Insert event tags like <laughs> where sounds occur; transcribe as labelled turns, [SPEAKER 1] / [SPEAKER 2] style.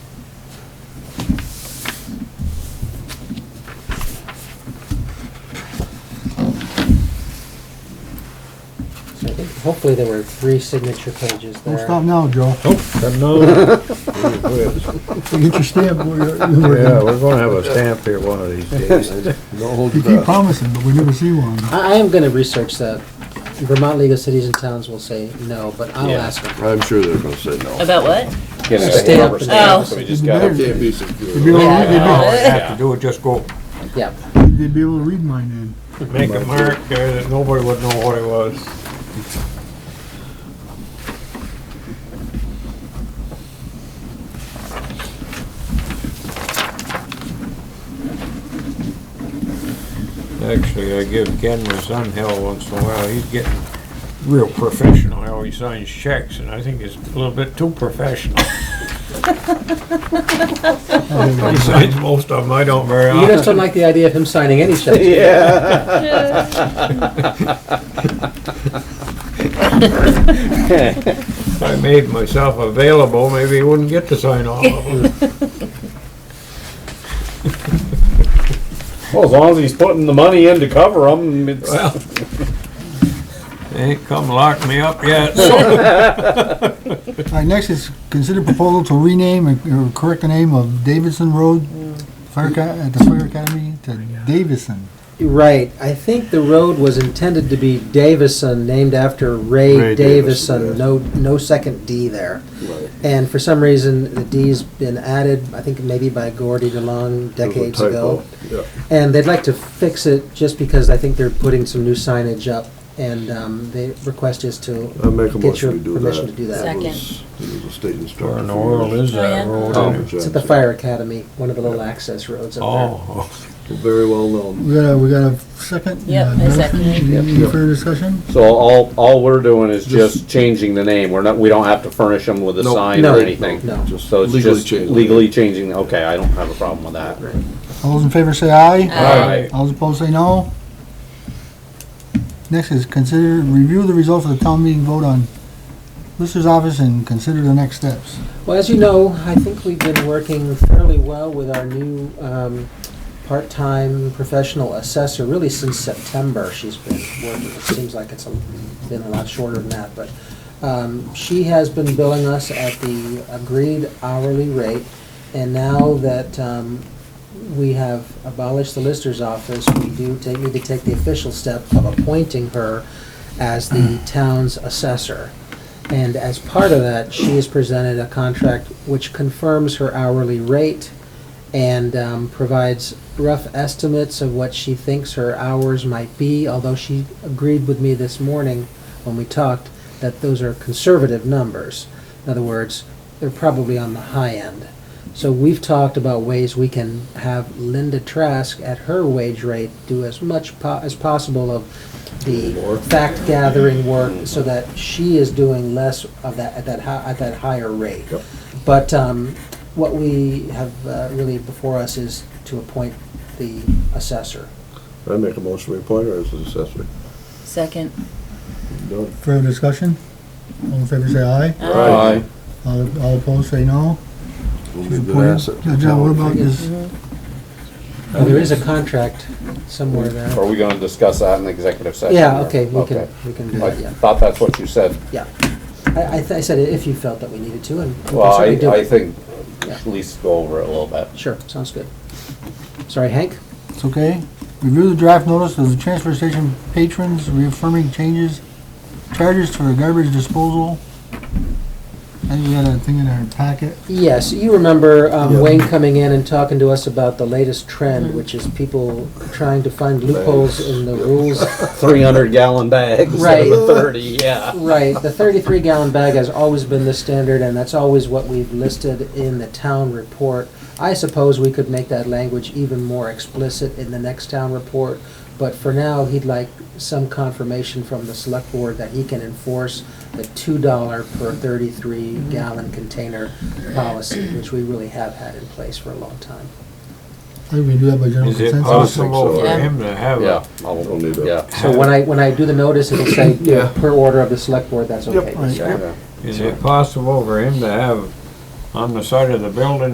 [SPEAKER 1] Hopefully there were three signature pages
[SPEAKER 2] Don't
[SPEAKER 1] there.
[SPEAKER 2] stop now, Joe.
[SPEAKER 3] Nope,
[SPEAKER 4] <laughs>
[SPEAKER 3] no. Quit.
[SPEAKER 2] Get your stamp. where you're- you were-
[SPEAKER 3] Yeah, we're gonna have a stamp here one of these days.
[SPEAKER 4] <laughs>
[SPEAKER 5] Don't hold
[SPEAKER 2] You
[SPEAKER 5] it
[SPEAKER 2] keep
[SPEAKER 5] up.
[SPEAKER 2] promising, but we never see one.
[SPEAKER 1] I, I am gonna research that. Vermont League of Cities and Towns will say no, but I'll ask them.
[SPEAKER 5] I'm sure they're gonna say no.
[SPEAKER 6] About what?
[SPEAKER 1] Stay up and
[SPEAKER 6] Oh.
[SPEAKER 1] down.
[SPEAKER 7] We just got
[SPEAKER 2] Better.
[SPEAKER 7] to
[SPEAKER 5] Can't be
[SPEAKER 2] You'd be able
[SPEAKER 5] secure.
[SPEAKER 2] to- they'd be-
[SPEAKER 6] Yeah.
[SPEAKER 4] All you have to do is just go
[SPEAKER 1] Yeah,
[SPEAKER 2] They'd be able to read mine then.
[SPEAKER 4] make a mark there that nobody would know what it was. Actually, I give Ken my son hell once in a while. He's getting real professional how he signs checks, and I think it's a little bit too professional. <laughs> He signs most of them. I don't very
[SPEAKER 1] you
[SPEAKER 4] often.
[SPEAKER 1] just don't like the idea of him signing any <laughs> checks.
[SPEAKER 4] If I made myself available, maybe he wouldn't get to sign all of them.
[SPEAKER 3] <laughs> Well, as long as he's putting the money in to cover them, it's.
[SPEAKER 4] Well, they ain't come lock me up <laughs> yet, so
[SPEAKER 2] All right, next is consider proposal to rename and or correct the name of Davidson Road Fire Aca- at the Fire Academy to Davison.
[SPEAKER 1] Right, I think the road was intended to be Davison, named after Ray
[SPEAKER 5] Ray Davison,
[SPEAKER 1] Davison,
[SPEAKER 5] yes.
[SPEAKER 1] no, no second D there.
[SPEAKER 5] Right.
[SPEAKER 1] And for some reason, the D's been added, I think maybe by Gordy DeLong
[SPEAKER 5] It was a
[SPEAKER 1] decades
[SPEAKER 5] typo.
[SPEAKER 1] ago.
[SPEAKER 5] Yeah.
[SPEAKER 1] And they'd like to fix it just because I think they're putting some new signage up and um, the request is
[SPEAKER 5] I
[SPEAKER 1] to
[SPEAKER 5] make a
[SPEAKER 1] get your
[SPEAKER 5] motion to do that.
[SPEAKER 1] permission to do that.
[SPEAKER 6] Second.
[SPEAKER 5] was- It was a state instructor.
[SPEAKER 4] where in the world is that road? anyway?
[SPEAKER 1] It's at the fire academy, one of the little access roads up
[SPEAKER 4] Oh,
[SPEAKER 5] Very well known.
[SPEAKER 2] We got a, we got a second?
[SPEAKER 6] Yep,
[SPEAKER 2] uh,
[SPEAKER 6] I
[SPEAKER 2] another
[SPEAKER 6] second it.
[SPEAKER 2] thing? Any further discussion?
[SPEAKER 8] So all, all we're doing is just changing the name, we're not, we don't have to furnish them with a
[SPEAKER 5] Nope.
[SPEAKER 8] sign
[SPEAKER 1] No,
[SPEAKER 8] or anything?
[SPEAKER 1] no.
[SPEAKER 5] Just
[SPEAKER 8] So it's
[SPEAKER 5] legally
[SPEAKER 8] just
[SPEAKER 5] changed.
[SPEAKER 8] legally changing, okay, I don't have a problem with that.
[SPEAKER 1] there.
[SPEAKER 2] All those in favor say aye.
[SPEAKER 4] I
[SPEAKER 2] All those opposed say no. Next is consider, review the results of the town meeting vote on Lister's office and consider the next steps.
[SPEAKER 1] Well, as you know, I think we've been working fairly well with our new um, part-time professional assessor, really since September she's been working. It seems like it's a- been a lot shorter than that, but um, she has been billing us at the agreed hourly rate. And now that um, we have abolished the Lister's office, we do take, need to take the official step of appointing her as the town's assessor. And as part of that, she has presented a contract which confirms her hourly rate and um, provides rough estimates of what she thinks her hours might be, although she agreed with me this morning when we talked that those are conservative numbers. In other words, they're probably on the high end. So we've talked about ways we can have Linda Trask at her wage rate do as much po- as possible of the fact gathering work so that she is doing less of that, at that, hi- at that higher rate. But um, what we have uh, really before us is to appoint the assessor.
[SPEAKER 5] I make a motion to appoint her as an assessor.
[SPEAKER 6] Second.
[SPEAKER 5] Done.
[SPEAKER 2] Further discussion? All in favor say aye.
[SPEAKER 8] Aye.
[SPEAKER 2] All all opposed say no.
[SPEAKER 5] We'll
[SPEAKER 2] She's
[SPEAKER 5] leave that
[SPEAKER 2] appointed.
[SPEAKER 5] asset.
[SPEAKER 2] Yeah, John, what about this?
[SPEAKER 1] Now, There is a contract somewhere there.
[SPEAKER 8] Are we gonna discuss that in the executive session?
[SPEAKER 1] Yeah,
[SPEAKER 8] or-
[SPEAKER 1] okay, we can, we can do
[SPEAKER 8] I
[SPEAKER 1] that, yeah.
[SPEAKER 8] thought that's what you said.
[SPEAKER 1] Yeah. I, I th- I said if you felt that we needed to, and we can
[SPEAKER 8] Well, I,
[SPEAKER 1] certainly do
[SPEAKER 8] I
[SPEAKER 1] it.
[SPEAKER 8] think,
[SPEAKER 1] Yeah.
[SPEAKER 8] at least go over it a little bit.
[SPEAKER 1] Sure, sounds good. Sorry, Hank?
[SPEAKER 2] It's okay. Review the draft notice of the transfer station patrons reaffirming changes, charges for garbage disposal. I think we got a thing in our packet.
[SPEAKER 1] Yes, you remember um, Wayne coming in and talking to us about the latest trend, which is people trying to find loopholes in the rules
[SPEAKER 8] Three hundred gallon bags,
[SPEAKER 1] Right.
[SPEAKER 8] <laughs> thirty, yeah.
[SPEAKER 1] Right, the thirty-three gallon bag has always been the standard, and that's always what we've listed in the town report. I suppose we could make that language even more explicit in the next town report, but for now, he'd like some confirmation from the select board that he can enforce the two dollar per thirty-three gallon container policy, which we really have had in place for a long time.
[SPEAKER 2] I think we do that by general
[SPEAKER 4] Is it
[SPEAKER 2] consensus.
[SPEAKER 4] possible for
[SPEAKER 6] Yeah.
[SPEAKER 4] him to have
[SPEAKER 8] Yeah.
[SPEAKER 4] a,
[SPEAKER 8] I'll-
[SPEAKER 5] Don't need that.
[SPEAKER 8] Yeah.
[SPEAKER 1] So when I, when I do the notice, it'll say, you know,
[SPEAKER 5] Yeah.
[SPEAKER 1] per order of the select board, that's okay.
[SPEAKER 2] Right.
[SPEAKER 1] Sure.
[SPEAKER 4] is it possible for him to have on the side of the building